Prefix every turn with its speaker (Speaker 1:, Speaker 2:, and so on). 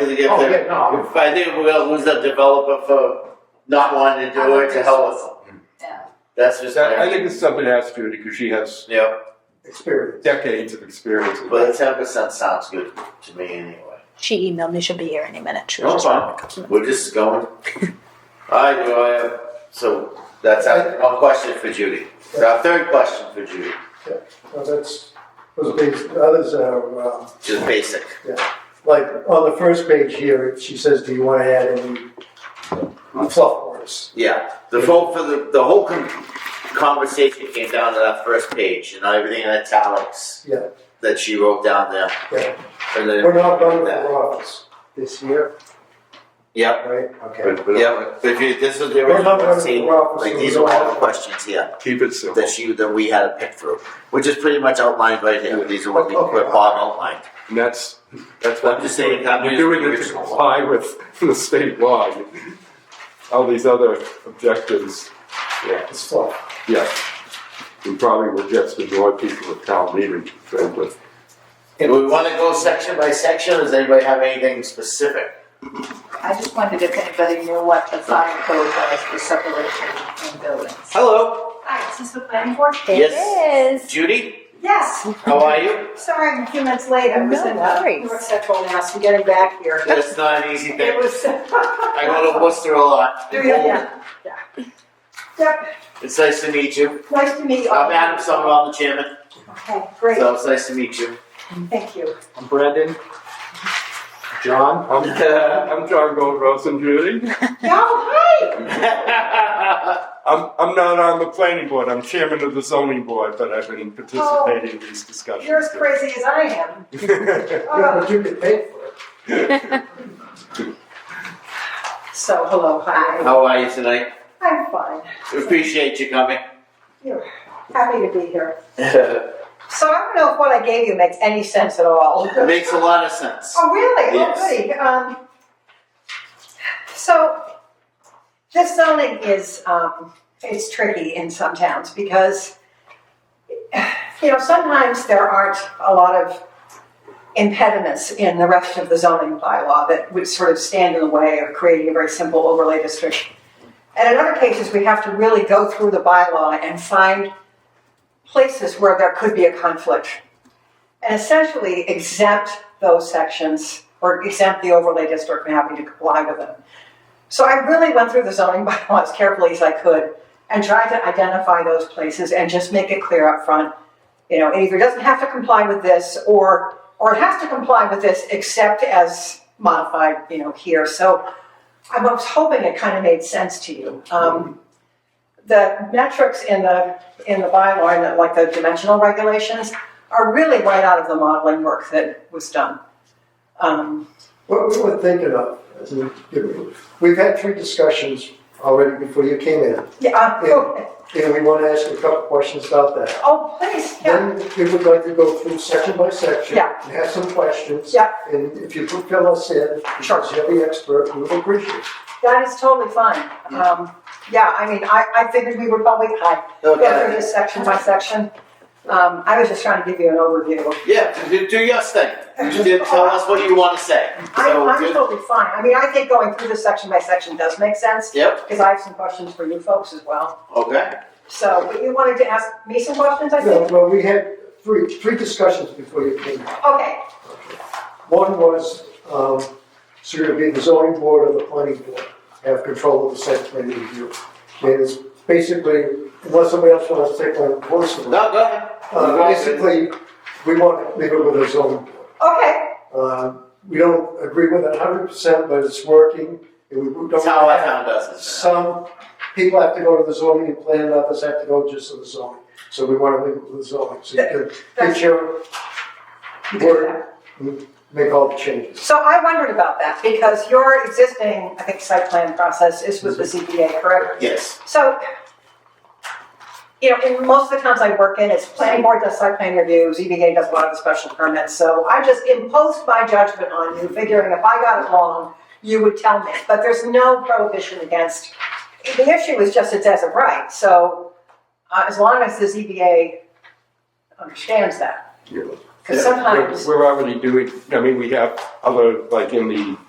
Speaker 1: if
Speaker 2: Oh,
Speaker 1: they're,
Speaker 2: yeah, no, I'm-
Speaker 1: if I think we're gonna lose a developer for not wanting to do it to hell with them.
Speaker 3: Yeah.
Speaker 1: That's just,
Speaker 4: That- I
Speaker 1: my-
Speaker 4: think this is something to ask Judy, because she has
Speaker 1: yeah,
Speaker 2: experience.
Speaker 4: decades of experience. in
Speaker 1: but
Speaker 4: that.
Speaker 1: ten percent sounds good to me anyway.
Speaker 5: She emailed me. She'll be here any minute. She
Speaker 1: No
Speaker 5: was
Speaker 1: problem, we're just going. I do, I, have- so that's our, one question for Judy. Our third question for Judy,
Speaker 2: Now that's, those big, others are, um,
Speaker 1: just basic.
Speaker 2: like, on the first page here, it- she says, do you wanna add any fluff words?
Speaker 1: Yeah, the whole, for the, the whole con- conversation came down to that first page and everything in italics
Speaker 2: Yeah,
Speaker 1: that she wrote down there.
Speaker 2: yeah.
Speaker 1: And then,
Speaker 2: We're not done with the office this year,
Speaker 1: yeah,
Speaker 2: right? Okay.
Speaker 4: But- but
Speaker 1: Yeah, but if you, this is the
Speaker 2: We're not
Speaker 1: original,
Speaker 2: running
Speaker 1: see,
Speaker 2: for office,
Speaker 1: like
Speaker 2: so
Speaker 1: these
Speaker 2: we
Speaker 1: are
Speaker 2: don't
Speaker 1: all the
Speaker 2: have-
Speaker 1: questions here
Speaker 4: Keep it simple.
Speaker 1: that she, that we had to pick through, which is pretty much outlined right here, these are what we,
Speaker 2: Okay.
Speaker 1: what Bob outlined.
Speaker 4: And that's, that's
Speaker 1: I'm
Speaker 4: what
Speaker 1: just saying, I'm
Speaker 4: you're
Speaker 1: using
Speaker 4: doing
Speaker 1: the
Speaker 4: it to
Speaker 1: original.
Speaker 4: comply with the state law. and All these other objectives, yeah,
Speaker 2: It's fluff.
Speaker 4: yeah. We probably will just annoy people at town meeting, frankly.
Speaker 1: Do we wanna go section by section, or does anybody have anything specific?
Speaker 3: I just wondered if anybody knew what the fire code was for separation in buildings.
Speaker 1: Hello,
Speaker 6: Hi, is this the planning board?
Speaker 5: It
Speaker 1: Yes.
Speaker 5: is.
Speaker 1: Judy,
Speaker 6: Yes,
Speaker 1: how are you?
Speaker 6: sorry, I'm a few minutes late, I was
Speaker 5: No
Speaker 6: in, uh,
Speaker 5: worries.
Speaker 6: North Central now, so I'm getting back here.
Speaker 1: That's not an easy
Speaker 6: It
Speaker 1: thing,
Speaker 6: was,
Speaker 1: I go to Worcester a lot.
Speaker 6: yeah, yeah. Yep,
Speaker 1: It's nice to meet you,
Speaker 6: nice to meet you.
Speaker 1: I'm Adam Summerall, the chairman,
Speaker 6: Okay, great,
Speaker 1: so it's nice to meet you.
Speaker 6: thank you.
Speaker 7: I'm Brendan. John.
Speaker 4: I'm, I'm John Goldross and Judy.
Speaker 6: Y'all, hi!
Speaker 4: I'm, I'm not on the planning board, I'm chairman of the zoning board, but I've been participating in these discussions.
Speaker 6: You're as crazy as I am.
Speaker 2: Yeah,
Speaker 6: Oh,
Speaker 2: but you could pay for it.
Speaker 6: So, hello, hi,
Speaker 1: How are you tonight?
Speaker 6: I'm fine,
Speaker 1: Appreciate you coming.
Speaker 6: you're happy to be here. So I don't know if what I gave you makes any sense at all.
Speaker 1: It makes a lot of sense.
Speaker 6: Oh, really?
Speaker 1: Yes.
Speaker 6: Oh, goody. Um, so this zoning is, um, it's tricky in some towns because, you know, sometimes there aren't a lot of impediments in the rest of the zoning bylaw that would sort of stand in the way of creating a very simple overlay district. And in other cases, we have to really go through the bylaw and find places where there could be a conflict and essentially exempt those sections or exempt the overlay district from having to comply with them. So I really went through the zoning bylaw as carefully as I could and tried to identify those places and just make it clear up front. You know, it either doesn't have to comply with this or, or it has to comply with this except as modified, you know, here. So I was hoping it kind of made sense to you. Um, the metrics in the, in the bylaw, and the- like the dimensional regulations, are really right out of the modeling work that was done. Um,
Speaker 2: What we were thinking of, as in, you know, we've had three discussions already before you came in,
Speaker 6: yeah, uh,
Speaker 2: Yeah.
Speaker 6: oh,
Speaker 2: and we wanna ask you a couple questions about that.
Speaker 6: oh, please, yeah,
Speaker 2: Then we would like to go through section by section.
Speaker 6: Yeah.
Speaker 2: And have some questions.
Speaker 6: Yeah.
Speaker 2: And if you could fill us in, because you're the expert, we would appreciate it.
Speaker 6: that is totally fine. Um, yeah, I mean, I, I figured we would probably I go through
Speaker 1: Okay.
Speaker 6: this section by section. Um, I was just trying to give you an overview.
Speaker 1: Yeah, do, do your thing. You did tell us what you want to say.
Speaker 6: I,
Speaker 1: So,
Speaker 6: I'm
Speaker 1: good.
Speaker 6: totally fine. I mean, I think going through this section by section does make sense,
Speaker 1: Yep,
Speaker 6: because I have some questions for you folks as well.
Speaker 1: okay.
Speaker 6: So, but you wanted to ask me some questions, I
Speaker 2: No,
Speaker 6: think?
Speaker 2: well, we had three, three discussions before you came.
Speaker 6: Okay,
Speaker 2: One was, um, so you're gonna be the zoning board or the planning board, have control of the site plan review. And it's basically, unless somebody else wants to take my voice from it,
Speaker 1: No, go ahead.
Speaker 2: uh, basically, we want to leave it with the zoning board.
Speaker 6: okay,
Speaker 2: Uh, we don't agree with it hundred percent, but it's working, and we don't.
Speaker 1: That's how I
Speaker 2: have-
Speaker 1: found us.
Speaker 2: Some people have to go to the zoning and plan, others have to go just to the zoning. So we want to leave it with the zoning, so you can
Speaker 6: That's-
Speaker 2: get your word, and make all the changes.
Speaker 6: So I wondered about that, because your existing, I think, site plan process is with the ZBA, correct?
Speaker 1: Yes,
Speaker 6: So, you know, in most of the towns I work in, it's planning board does site plan review, ZBA does a lot of the special permits, so I just imposed my judgment on you, figuring if I got it wrong, you would tell me, but there's no prohibition against, the issue is just it's as of right, so, uh, as long as the ZBA understands that,
Speaker 4: Yeah.
Speaker 6: because
Speaker 1: Yeah,
Speaker 6: sometimes.
Speaker 4: We're we're already doing, I mean, we have other, like in the